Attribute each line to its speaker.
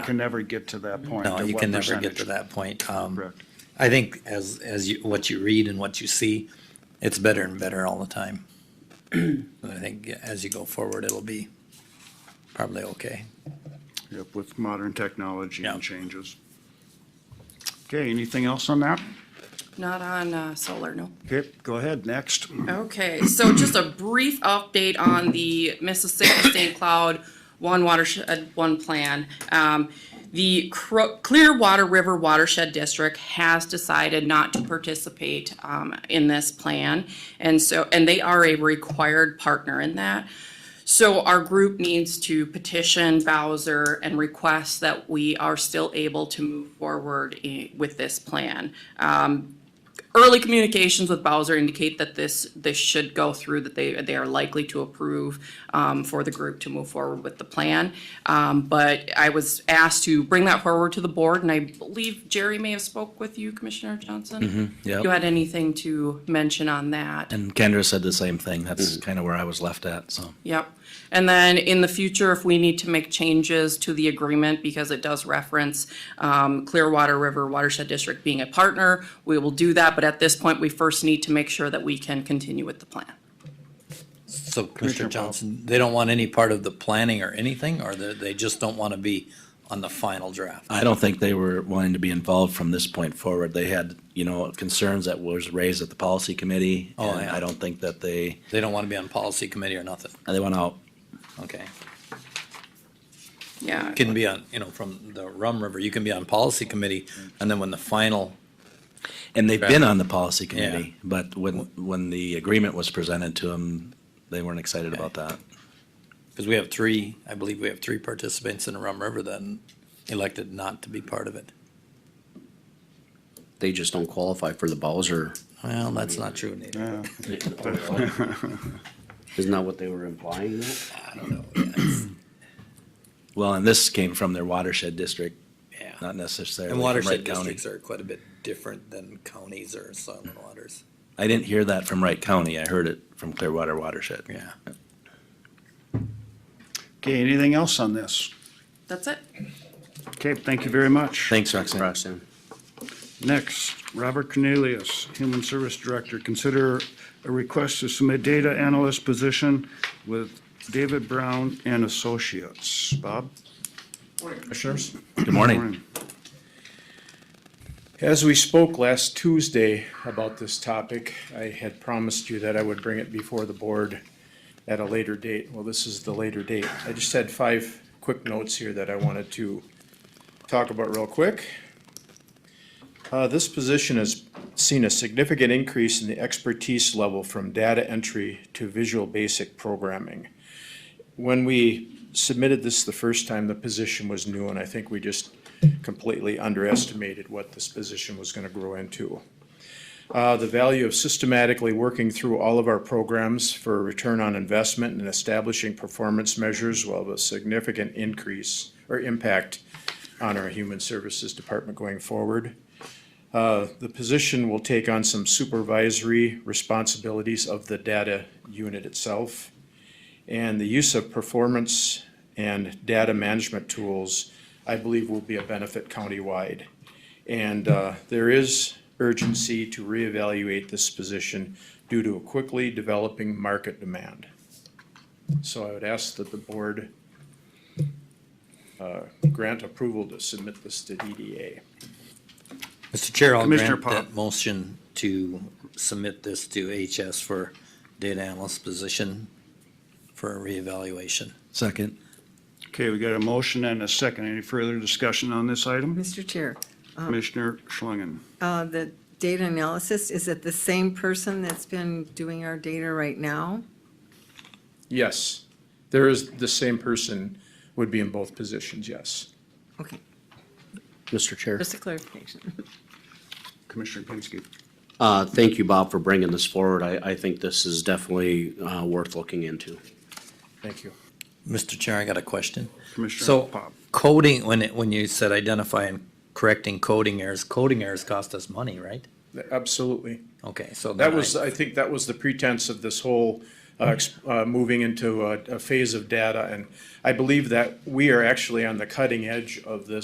Speaker 1: Can never get to that point.
Speaker 2: No,
Speaker 1: of
Speaker 2: you
Speaker 1: what
Speaker 2: can never get to
Speaker 1: percentage.
Speaker 2: that point. Um,
Speaker 1: Correct.
Speaker 2: I think as, as you, what you read and what you see, it's better and better all the time. And I think as you go forward, it'll be probably okay.
Speaker 1: Yep, with modern technology
Speaker 2: Yeah.
Speaker 1: and changes. Okay, anything else on that?
Speaker 3: Not on uh, solar, no.
Speaker 1: Okay, go ahead, next.
Speaker 3: Okay, so just a brief update on the Mississippi St. Cloud One Watershed, One Plan. Um, the Cro- Clearwater River Watershed District has decided not to participate, um, in this plan. And so, and they are a required partner in that. So our group needs to petition Bowser and request that we are still able to move forward i- with this plan early communications with Bowser indicate that this, this should go through, that they, they are likely to approve um, for the group to move forward with the plan. Um, But I was asked to bring that forward to the board, and I believe Jerry may have spoke with you, Commissioner Johnson?
Speaker 4: yep.
Speaker 3: You had anything to mention on that?
Speaker 4: And Kendra said the same thing. That's
Speaker 2: Mm-hmm.
Speaker 4: kind of where I was left at, so.
Speaker 3: Yep. And then in the future, if we need to make changes to the agreement, because it does reference um, Clearwater River Watershed District being a partner, we will do that. But at this point, we first need to make sure that we can continue with the plan.
Speaker 2: So Commissioner Johnson, they don't want any part of the planning or anything, or they, they just don't want to be on the final draft?
Speaker 4: I don't think they were wanting to be involved from this point forward. They had, you know, concerns that was raised at the policy committee.
Speaker 2: Oh,
Speaker 4: and
Speaker 2: yeah.
Speaker 4: I don't think that they,
Speaker 2: They don't want to be on policy committee or nothing?
Speaker 4: they went out.
Speaker 2: Okay.
Speaker 3: Yeah.
Speaker 2: Can be on, you know, from the Rum River, you can be on policy committee, and then when the final,
Speaker 4: And they've been on the policy committee, but when, when the agreement was presented to them, they weren't excited about that.
Speaker 2: because we have three, I believe we have three participants in Rum River that elected not to be part of it.
Speaker 5: they just don't qualify for the Bowser.
Speaker 2: Well, that's not true, Nate.
Speaker 1: Yeah,
Speaker 5: Isn't that what they were implying? though?
Speaker 2: I don't know. Yes.
Speaker 4: Well, and this came from their watershed district,
Speaker 2: Yeah.
Speaker 4: not necessarily
Speaker 2: And
Speaker 4: from
Speaker 2: watershed
Speaker 4: Wright County.
Speaker 2: districts are quite a bit different than counties or soil and waters.
Speaker 4: I didn't hear that from Wright County. I heard it from Clearwater Watershed.
Speaker 2: Yeah.
Speaker 1: Okay, anything else on this?
Speaker 3: That's it.
Speaker 1: Okay, thank you very much.
Speaker 4: Thanks, Roxanne.
Speaker 5: Roxanne.
Speaker 1: Next, Robert Cornelius, Human Service Director, consider a request to submit data analyst position with David Brown and Associates. Bob?
Speaker 6: Commissioners.
Speaker 4: Good morning.
Speaker 1: Morning.
Speaker 6: As we spoke last Tuesday about this topic, I had promised you that I would bring it before the board at a later date. Well, this is the later date. I just had five quick notes here that I wanted to talk about real quick. Uh, this position has seen a significant increase in the expertise level from data entry to visual basic programming. When we submitted this the first time, the position was new, and I think we just completely underestimated what this position was gonna grow into. Uh, the value of systematically working through all of our programs for return on investment and establishing performance measures will have a significant increase or impact on our human services department going forward. Uh, the position will take on some supervisory responsibilities of the data unit itself. And the use of performance and data management tools, I believe, will be a benefit countywide. And uh, there is urgency to reevaluate this position due to a quickly developing market demand. So I would ask that the board uh, grant approval to submit this to DDA.
Speaker 2: Mr. Chair, I'll
Speaker 1: Commissioner
Speaker 2: grant
Speaker 1: Pop.
Speaker 2: that motion to submit this to HS for data analyst position for reevaluation.
Speaker 4: Second.
Speaker 1: Okay, we got a motion and a second. Any further discussion on this item?
Speaker 7: Mr. Chair,
Speaker 1: Commissioner Schlangen.
Speaker 7: uh, the data analysis, is it the same person that's been doing our data right now?
Speaker 6: Yes, there is, the same person would be in both positions, yes.
Speaker 7: Okay,
Speaker 5: Mr. Chair,
Speaker 7: just a clarification.
Speaker 1: Commissioner Pinsky.
Speaker 5: uh, thank you, Bob, for bringing this forward. I, I think this is definitely, uh, worth looking into.
Speaker 6: Thank you.
Speaker 2: Mr. Chair, I got a question.
Speaker 1: Commissioner
Speaker 2: So
Speaker 1: Pop.
Speaker 2: coding, when it, when you said identify and correcting coding errors, coding errors cost us money, right?
Speaker 6: Absolutely.
Speaker 2: Okay, so.
Speaker 6: That
Speaker 2: then I-
Speaker 6: was, I think that was the pretense of this whole uh, ex- uh, moving into a, a phase of data. And I believe that we are actually on the cutting edge of this.